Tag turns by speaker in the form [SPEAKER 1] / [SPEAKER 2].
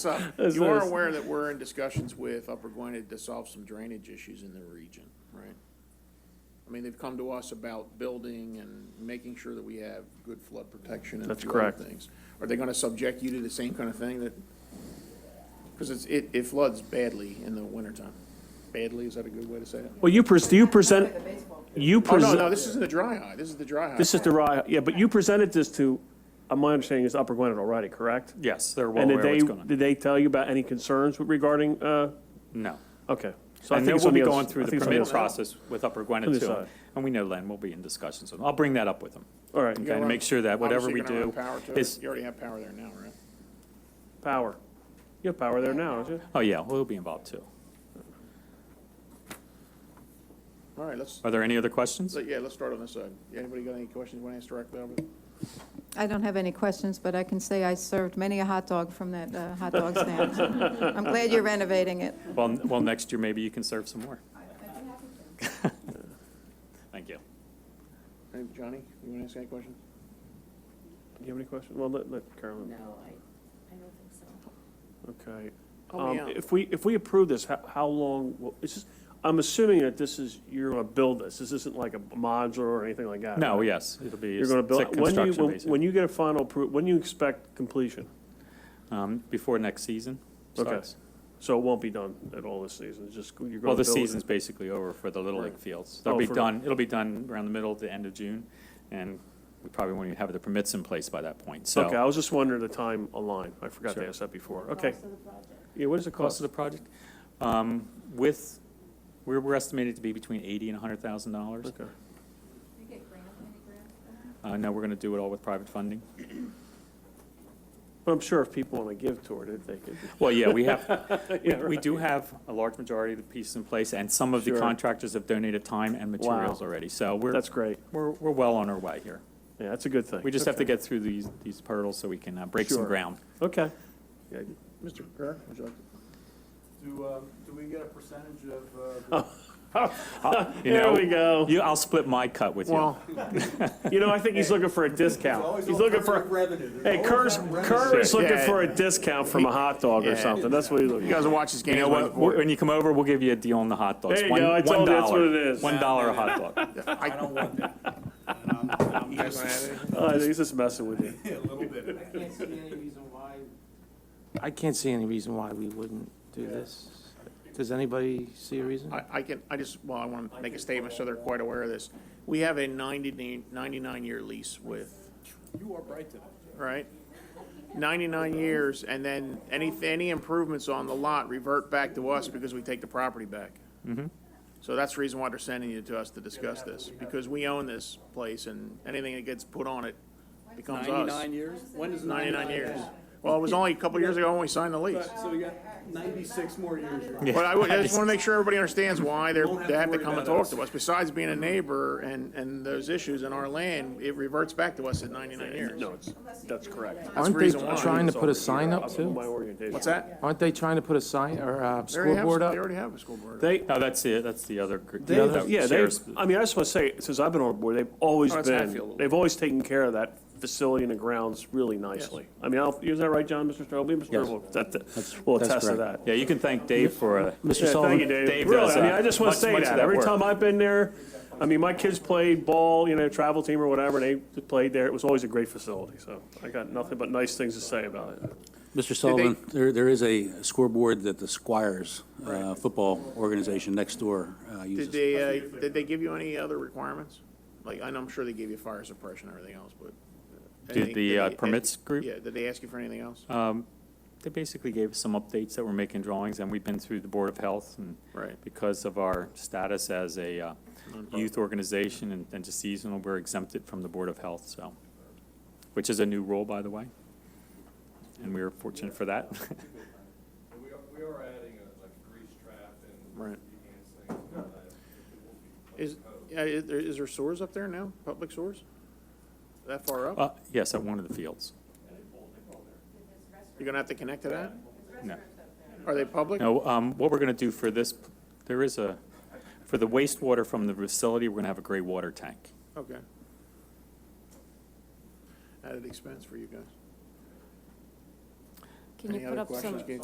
[SPEAKER 1] So
[SPEAKER 2] This
[SPEAKER 1] you are
[SPEAKER 2] is-
[SPEAKER 1] aware that we're in discussions with Upper Gwinnett to solve some drainage issues in the region, right? I mean, they've come to us about building and making sure that we have good flood protection and a
[SPEAKER 2] That's
[SPEAKER 1] few other
[SPEAKER 2] correct.
[SPEAKER 1] things. Are they gonna subject you to the same kind of thing that, because it's, it, it floods badly in the wintertime. Badly, is that a good way to say it?
[SPEAKER 2] Well, you pres, you present, you
[SPEAKER 1] Oh, no,
[SPEAKER 2] present.
[SPEAKER 1] no, this isn't the dry eye, this is the dry eye.
[SPEAKER 2] This is the
[SPEAKER 1] part.
[SPEAKER 2] right, yeah, but you presented this to, uh, my understanding is Upper Gwinnett already, correct?
[SPEAKER 3] Yes, they're well
[SPEAKER 2] And did
[SPEAKER 3] aware
[SPEAKER 2] they,
[SPEAKER 3] what's going on.
[SPEAKER 2] did they tell you about any concerns regarding, uh,
[SPEAKER 3] No.
[SPEAKER 2] okay. So I
[SPEAKER 3] And
[SPEAKER 2] think
[SPEAKER 3] then
[SPEAKER 2] it's
[SPEAKER 3] we'll
[SPEAKER 2] on
[SPEAKER 3] be
[SPEAKER 2] the other-
[SPEAKER 3] going
[SPEAKER 2] I
[SPEAKER 3] through the
[SPEAKER 2] think it's on the
[SPEAKER 3] permit
[SPEAKER 2] other-
[SPEAKER 3] process with Upper
[SPEAKER 2] On
[SPEAKER 3] Gwinnett
[SPEAKER 2] the
[SPEAKER 3] too.
[SPEAKER 2] side.
[SPEAKER 3] And we know Len, we'll be in discussions with him. I'll bring that up with him.
[SPEAKER 2] All right,
[SPEAKER 1] You
[SPEAKER 3] Okay,
[SPEAKER 1] gotta
[SPEAKER 3] to make
[SPEAKER 1] run-
[SPEAKER 3] sure that whatever
[SPEAKER 1] obviously
[SPEAKER 3] we
[SPEAKER 1] you're
[SPEAKER 3] do
[SPEAKER 1] gonna run power to
[SPEAKER 3] is,
[SPEAKER 1] it. You already have power there now, right?
[SPEAKER 2] power. You have power there now, don't you?
[SPEAKER 3] oh yeah, we'll be involved too.
[SPEAKER 1] All right, let's,
[SPEAKER 3] Are there any other questions?
[SPEAKER 1] So, yeah, let's start on this side. Anybody got any questions you want to ask directly Albert?
[SPEAKER 4] I don't have any questions, but I can say I served many a hot dog from that uh, hot dog stand. I'm glad you're renovating it.
[SPEAKER 3] Well, n- well, next year maybe you can serve some more. Thank you.
[SPEAKER 1] Hey, Johnny, you want to ask any questions?
[SPEAKER 2] Do you have any questions? Well, let, let Carolyn,
[SPEAKER 5] No, I, I don't think so.
[SPEAKER 2] okay.
[SPEAKER 1] Oh,
[SPEAKER 2] Um,
[SPEAKER 1] yeah.
[SPEAKER 2] If we, if we approve this, how, how long, will- it's just, I'm assuming that this is, you're gonna build this. This isn't like a modular or anything like that.
[SPEAKER 3] No,
[SPEAKER 2] right?
[SPEAKER 3] yes, it'll be.
[SPEAKER 2] You're gonna build,
[SPEAKER 3] it's a
[SPEAKER 2] when do you,
[SPEAKER 3] construction
[SPEAKER 2] when-
[SPEAKER 3] basis.
[SPEAKER 2] when you get a final appro, when do you expect completion?
[SPEAKER 3] Um, before next season
[SPEAKER 2] Okay.
[SPEAKER 3] starts.
[SPEAKER 2] So it won't be done at all this season, it's just, you're gonna build it?
[SPEAKER 3] Well, the season's basically over for the Little League fields. They'll
[SPEAKER 2] Oh,
[SPEAKER 3] be
[SPEAKER 2] for-
[SPEAKER 3] done, it'll be done around the middle to end of June, and we probably won't even have the permits in place by that point, so.
[SPEAKER 2] Okay, I was just wondering the time aligned, I forgot to
[SPEAKER 3] Sure.
[SPEAKER 2] ask that before, okay.
[SPEAKER 5] Cost of the project.
[SPEAKER 2] Yeah, what is the
[SPEAKER 3] cost
[SPEAKER 2] cost?
[SPEAKER 3] of the project. Um, With, we're we're estimated to be between eighty and hundred thousand dollars.
[SPEAKER 2] Okay.
[SPEAKER 5] You get grant, any grant?
[SPEAKER 3] Uh, now we're gonna do it all with private funding.
[SPEAKER 2] But I'm sure if people wanna give toward it, they could.
[SPEAKER 3] Well, yeah, we have,
[SPEAKER 2] Yeah,
[SPEAKER 3] we
[SPEAKER 2] right.
[SPEAKER 3] do have a large majority of the pieces in place, and some of the
[SPEAKER 2] Sure.
[SPEAKER 3] contractors have donated time and materials
[SPEAKER 2] Wow.
[SPEAKER 3] already. So we're,
[SPEAKER 2] That's great,
[SPEAKER 3] we're, we're well on our way here.
[SPEAKER 2] yeah, that's a good thing.
[SPEAKER 3] We just have to
[SPEAKER 2] Okay.
[SPEAKER 3] get through these, these hurdles so we can uh, break some
[SPEAKER 2] Sure.
[SPEAKER 3] ground.
[SPEAKER 2] Okay,
[SPEAKER 1] Mr. Kerr, would you like to?
[SPEAKER 6] Do, um, do we get a percentage of, uh,
[SPEAKER 3] You
[SPEAKER 2] there
[SPEAKER 3] know,
[SPEAKER 2] we go.
[SPEAKER 3] You, I'll split my cut with you.
[SPEAKER 2] You know, I think he's looking for a discount,
[SPEAKER 6] always
[SPEAKER 2] he's
[SPEAKER 6] all
[SPEAKER 2] looking
[SPEAKER 6] kinds
[SPEAKER 2] for,
[SPEAKER 6] of revenue. There's
[SPEAKER 2] hey,
[SPEAKER 6] always
[SPEAKER 2] Kerr's,
[SPEAKER 6] that revenue.
[SPEAKER 2] Kerr is looking
[SPEAKER 1] Yeah.
[SPEAKER 2] for a discount from a hot dog or
[SPEAKER 1] Yeah.
[SPEAKER 2] something, that's what he's looking
[SPEAKER 1] You
[SPEAKER 2] for.
[SPEAKER 1] guys will watch this game.
[SPEAKER 3] You know what, when you come over, we'll give you a deal on the hot dogs.
[SPEAKER 2] There you
[SPEAKER 3] One-
[SPEAKER 2] go. I told you that's
[SPEAKER 3] $1.
[SPEAKER 2] what it is.
[SPEAKER 3] One dollar a hot dog.
[SPEAKER 6] I don't want Um, that. And I'm- I'm just-
[SPEAKER 2] Oh, I think he's just messing with you.
[SPEAKER 6] A little bit.
[SPEAKER 7] I can't see any reason why. I can't see any reason why we wouldn't do this. Does anybody see a reason?
[SPEAKER 1] I, I can, I just, well, I want to make a statement so they're quite aware of this. We have a 90 ninety-nine-year lease with,
[SPEAKER 6] You are bright today.
[SPEAKER 1] right? Ninety-nine years, and then any, any improvements on the lot revert back to us because we take the property back. So that's the reason why they're sending it to us to discuss this, because we own this place, and anything that gets put on it becomes us.
[SPEAKER 7] Ninety-nine years? When is
[SPEAKER 1] 99 years. Well, it was only a couple years ago when we signed the lease.
[SPEAKER 7] So we got ninety-six more years. right?
[SPEAKER 1] But I would- I just want to make sure everybody understands why they're,
[SPEAKER 7] have
[SPEAKER 1] they
[SPEAKER 7] to
[SPEAKER 1] have to
[SPEAKER 7] worry
[SPEAKER 1] come and
[SPEAKER 7] about
[SPEAKER 1] talk
[SPEAKER 7] us.
[SPEAKER 1] to us. Besides being a neighbor and, and those issues in our land, it reverts back to us at 99 years.
[SPEAKER 2] No, it's, that's correct.
[SPEAKER 1] That's the
[SPEAKER 7] Aren't they
[SPEAKER 1] reason why.
[SPEAKER 7] trying to put a sign up
[SPEAKER 2] My
[SPEAKER 7] too?
[SPEAKER 2] orientation.
[SPEAKER 1] What's that?
[SPEAKER 7] Aren't they trying to put a sign or a
[SPEAKER 1] They already have,
[SPEAKER 7] scoreboard
[SPEAKER 1] they
[SPEAKER 7] up?
[SPEAKER 1] already have a scoreboard.
[SPEAKER 3] They, no, that's it, that's the other. gr- the
[SPEAKER 2] They-
[SPEAKER 3] other
[SPEAKER 2] yeah, they,
[SPEAKER 3] shares.
[SPEAKER 2] I mean, I just want to say, since I've been on board, they've always
[SPEAKER 1] Oh, that's
[SPEAKER 2] been,
[SPEAKER 1] Hatfield.
[SPEAKER 2] they've always taken care of that facility and the grounds really nicely. I mean, I'll- is that right, John, Mr. Strobel? Mr. Strobel, that- that- will
[SPEAKER 7] that's
[SPEAKER 2] attest to that.
[SPEAKER 7] correct.
[SPEAKER 3] Yeah, you can thank Dave for, uh,
[SPEAKER 2] Yeah,
[SPEAKER 7] Mr.
[SPEAKER 2] thank you,
[SPEAKER 7] Sullivan,
[SPEAKER 2] Dave.
[SPEAKER 3] Dave
[SPEAKER 2] Really,
[SPEAKER 3] does,
[SPEAKER 2] I mean,
[SPEAKER 3] uh,
[SPEAKER 2] I just want to
[SPEAKER 3] much-
[SPEAKER 2] say
[SPEAKER 3] much of
[SPEAKER 2] that.
[SPEAKER 3] that
[SPEAKER 2] Every
[SPEAKER 3] work.
[SPEAKER 2] time I've been there, I mean, my kids played ball, you know, travel team or whatever, and they played there. It was always a great facility, so I got nothing but nice things to say about it.
[SPEAKER 8] Mr. Sullivan, there, there is a scoreboard that the Squires uh, football organization next door uh,
[SPEAKER 1] Did
[SPEAKER 8] uses.
[SPEAKER 1] they, uh, did they give you any other requirements? Like, I know I'm sure they gave you fire suppression and everything else, but.
[SPEAKER 3] Did
[SPEAKER 1] anything-
[SPEAKER 3] the, uh,
[SPEAKER 1] they-
[SPEAKER 3] permits group? Uh.
[SPEAKER 1] Yeah, did they ask you for anything else?
[SPEAKER 3] they basically gave us some updates that we're making drawings, and we've been through the Board of Health, and
[SPEAKER 1] Right.
[SPEAKER 3] because of our status as a uh, youth organization and, and just seasonal, we're exempted from the Board of Health, so, which is a new rule, by the way, and we were fortunate for that.
[SPEAKER 9] We are, we are adding a, like a grease trap and
[SPEAKER 1] Right.
[SPEAKER 9] enhance things and all that. It will be
[SPEAKER 1] Is, yeah, is there- is there sewers up there now? Public sewers? That far up?
[SPEAKER 3] Uh, Yes, at one of the fields.
[SPEAKER 1] You're gonna have to connect to that?
[SPEAKER 3] No.
[SPEAKER 1] Are they public?
[SPEAKER 3] No, um, what we're going to do for this, there is a, for the wastewater from the facility, we're going to have a gray water tank.
[SPEAKER 1] Okay. Added expense for you guys. Any other questions, Keith?